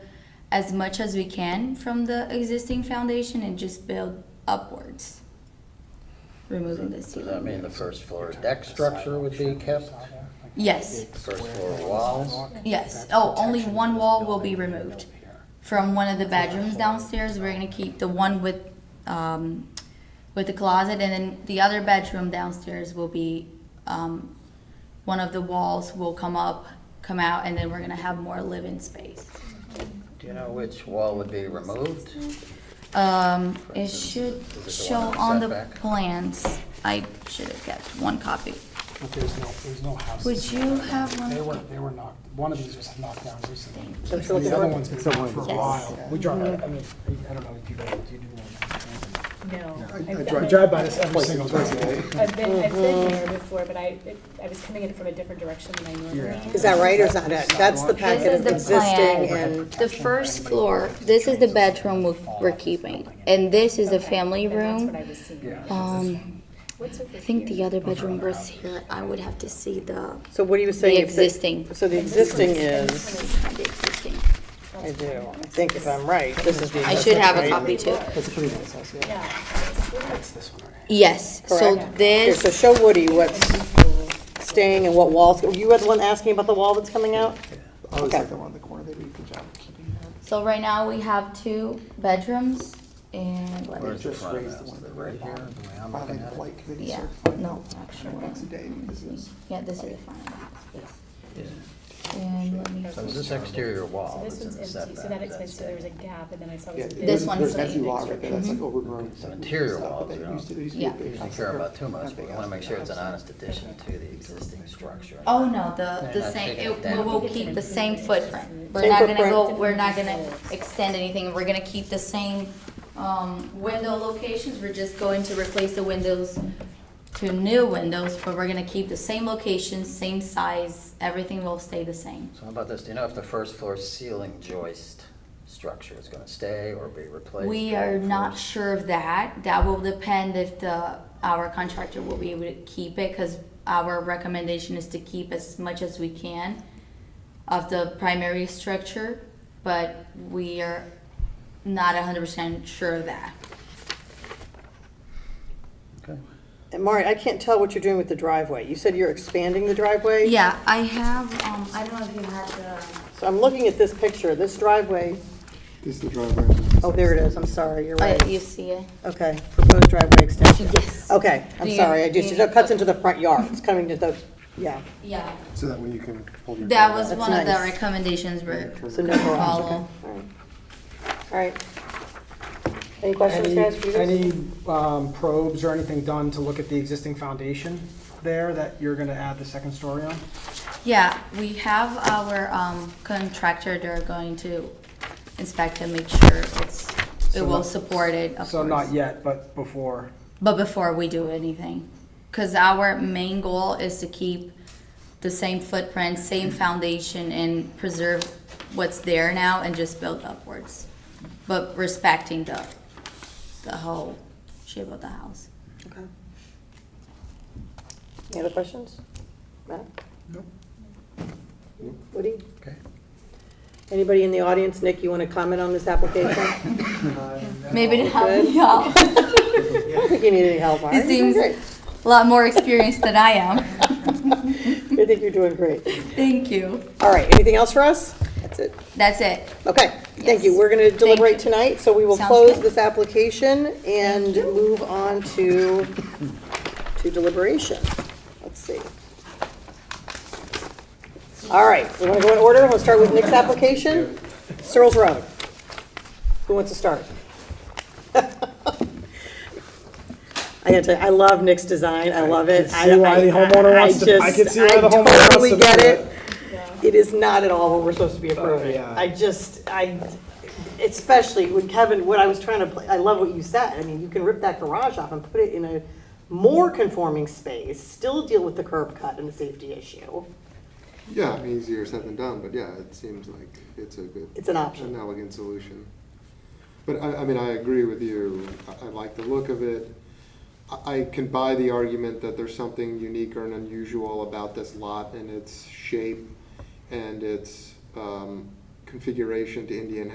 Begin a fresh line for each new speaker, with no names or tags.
as much as we can from the existing foundation and just build upwards. Removing the
Does that
ceiling.
mean the first floor deck structure would be kept?
Yes,
The first floor walls?
yes. Oh, only one wall will be removed. From one of the bedrooms downstairs, we're gonna keep the one with, um, with the closet and then the other bedroom downstairs will be, um, one of the walls will come up, come out, and then we're gonna have more living space.
Do you know which wall would be removed?
Um, it
instance,
should
is it the
show
one on the
on the
setback?
plans. I should have kept one copy.
But there's no, there's no houses.
Would you have one?
They were, they were knocked, one of these was knocked down recently.
Let's look
The
at
other
what-
one's been knocked for a
Yes.
while. We drive, by- I mean, I don't know if you guys, do you do one?
No.
I-
I've
I
been-
drive-
We drive Oh. by this every single day.
I've been, I've been there before, but I, it- I was coming in from a different direction than I normally
Yeah.
am.
Is that right, or is that it? That's the packet
This
of
is the plan.
existing and,
The first floor, this is the bedroom we've- we're keeping, and this is the family
And that's what
room.
I was seeing.
Yeah.
Um,
What's over
I think the
here?
other bedroom was here, I would have to see the,
so what are you
the
saying? if the-
existing.
So the existing
And this
is,
one
The existing.
I do, I think if I'm right, this is the.
I should have a
existing, right?
copy too.
It's a pretty nice house, yeah.
Yeah.
It's this one right here.
Yes, so
Correct. Here, so
this,
show Woody what's staying and what walls, you were the one asking about the wall that's coming out?
I always
Okay.
like the one in the corner, they do a good job of keeping that.
so right now we have two bedrooms and let me,
Where's the
Just
front
raise the
house?
one at the
Right here,
bottom.
the way I'm
I
looking
think
at
the
it.
light committee
yeah,
certified.
no, actually,
Once a day, because it's-
yeah, this is the final one, yes. And let me,
So is this exterior
So
wall
this
that's in
one's
the
empty,
setback?
so that
that's
explains, so
it.
there was a gap, and then I saw.
Yeah,
this big-
there's-
one
There's
side.
empty lot right there, that's like overgrown.
So interior walls,
But
Mm-hmm. you
it
know,
used to- there used to be a
Yeah.
big
We don't
house
care
there.
about too much,
Not
but
big
we wanna
house,
make
big
sure it's an
house.
honest addition to the existing structure.
Oh, no, the, the
Not
same,
taking
it,
it down.
we will keep the same footprint. We're
Same
not gonna
footprint.
go, we're not gonna extend anything, we're gonna keep the same, um, window locations. We're just going to replace the windows to new windows, but we're gonna keep the same location, same size, everything will stay the same.
So how about this, do you know if the first floor ceiling joist structure is gonna stay or be replaced?
We are
going
not
first?
sure of that, that will depend if the, our contractor will be able to keep it, cause our recommendation is to keep as much as we can of the primary structure, but we are not hundred percent sure of that.
Okay.
And Mari, I can't tell what you're doing with the driveway, you said you're expanding the driveway?
Yeah, I have, um, I don't know if you had the,
So I'm looking at this picture, this driveway,
This is the driveway.
oh, there it is, I'm sorry, you're
oh,
right.
you see it?
Okay, proposed driveway extension.
Yes.
Okay, I'm
Do you-
sorry, I
do
just,
you-
it cuts into the front yard, it's coming to the, yeah,
Yeah,
So that way you can pull your.
that was
That's
one of the
nice.
recommendations we're
so
gonna
no garage, okay,
follow.
all right. All right. Any questions,
Any-
guys? for you guys?
Any um, probes or anything done to look at the existing foundation there that you're gonna add the second story on?
Yeah, we have our um, contractor, they're going to inspect and make sure it's, it
So
will
not-
support it, of
So not
course.
yet, but before.
But before we do anything, because our main goal is to keep the same footprint, same
Mm-hmm.
foundation, and preserve what's there now and just build upwards. But respecting the, the whole shape of the house.
Okay. Any other questions? Matt?
Nope.
Woody?
Okay.
Anybody in the audience? Nick, you want to comment on this application?
嗯
Maybe to help
good.
me out.
I don't think you need any help, Mari.
He
You're doing
seems
great.
a lot more experienced than I am.
I think you're doing great.
Thank you.
All right, anything else for us? That's it.
That's it.
Okay, thank you.
Yes.
We're going to deliberate
you.
tonight, so we will
Sounds
close
good.
this application and move on to, to deliberation. Let's see. All right, we want to go in order. We'll start with Nick's application, Searles Road. Who wants to start? I gotta tell you, I love Nick's design. I love it.
I can see why the homeowner wants to- I can see why the homeowner wants
I totally
to
get
do
it.
it.
It is not at all what we're supposed to be approving.
yeah.
I just, I, especially when Kevin, what I was trying to play, I love what you said. I mean, you can rip that garage off and put it in a more conforming space, still deal with the curb cut and the safety issue.
Yeah, I mean, easier said than done, but yeah, it seems like it's a good.
It's an option.
An elegant solution. But I, I mean, I agree with you. I, I like the look of it. I, I can buy the argument that there's something unique or unusual about this lot and its shape and its, um, configuration to Indian